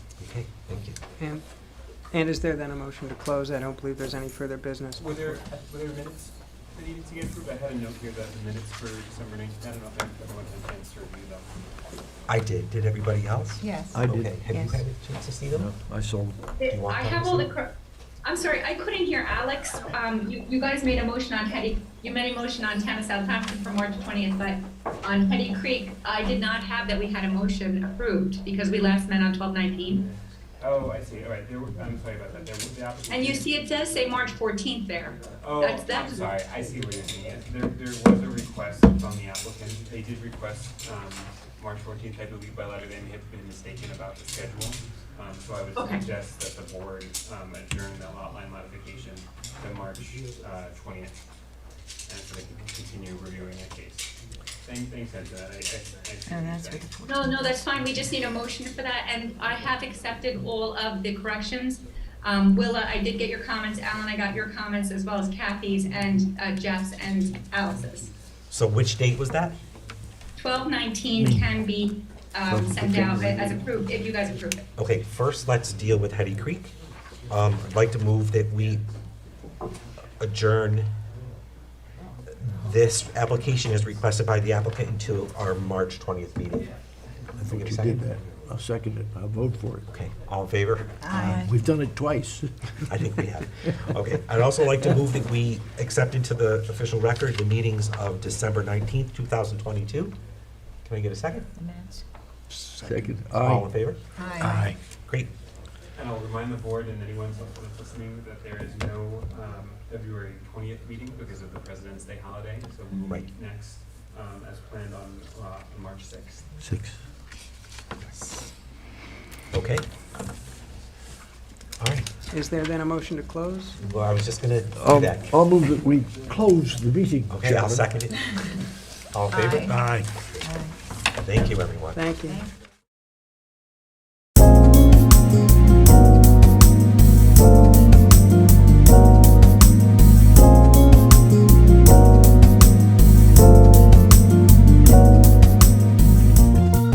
Okay, thank you. And, and is there then a motion to close? I don't believe there's any further business. Were there, were there minutes that needed to get approved? I had a note here that the minutes for December nineteenth, I don't know if everyone had a chance to review them. I did, did everybody else? Yes. I did. Okay, have you Yes. had a chance to see them? I saw, Do you want I have all the, copies? cor- I'm sorry, I couldn't hear Alex. Um, you, you guys made a motion on Hetty, you made a motion on town of Southampton for March twentieth, but on Hetty Creek, I did not have that we had a motion approved because we last met on twelve nineteen. Oh, I see, all right, there were, I'm sorry about that, there were the application. And you see it does say March fourteenth there. Oh, that's- that I'm was- sorry, I see what you're saying, yes, there, there was a request from the applicant, they did request, um, March fourteenth, I believe by letter, they may have been mistaken about the schedule. Um, so I would Okay. suggest that the board, um, adjourn the lot line modification to March, uh, twentieth. And so they can continue reviewing that case. Thanks, thanks, Angela, I, I, I see what you're And that's what saying. the fourteen. No, no, that's fine, we just need a motion for that, and I have accepted all of the corrections. Um, Willa, I did get your comments, Alan, I got your comments, as well as Kathy's and uh, Jeff's and Alice's. So which date was that? Twelve nineteen can be, um, sent out as approved, if you guys approve it. Okay, first, let's deal with Hetty Creek. Um, I'd like to move that we adjourn this application as requested by the applicant until our March 20th meeting. I think you did that. I'll second it. I'll vote for it. Uh, Okay, all in favor? Aye. We've done it twice. I think we have. Okay, I'd also like to move that we accept into the official record the meetings of December 19th, 2022. Can I get a second? The minutes. Second, All in aye. favor? Aye. Great. And I'll remind the board and anyone else that's listening that there is no um, February 20th meeting because of the President's Day holiday, so we will Right. meet next um, as planned on uh, March 6th. Six. Okay. All right, Is there then a motion to close? well, I was just gonna do Um, that. I'll move that we close the meeting, Okay, I'll gentlemen. second it. All in favor? Aye. Thank you, everyone. Thank you. Thank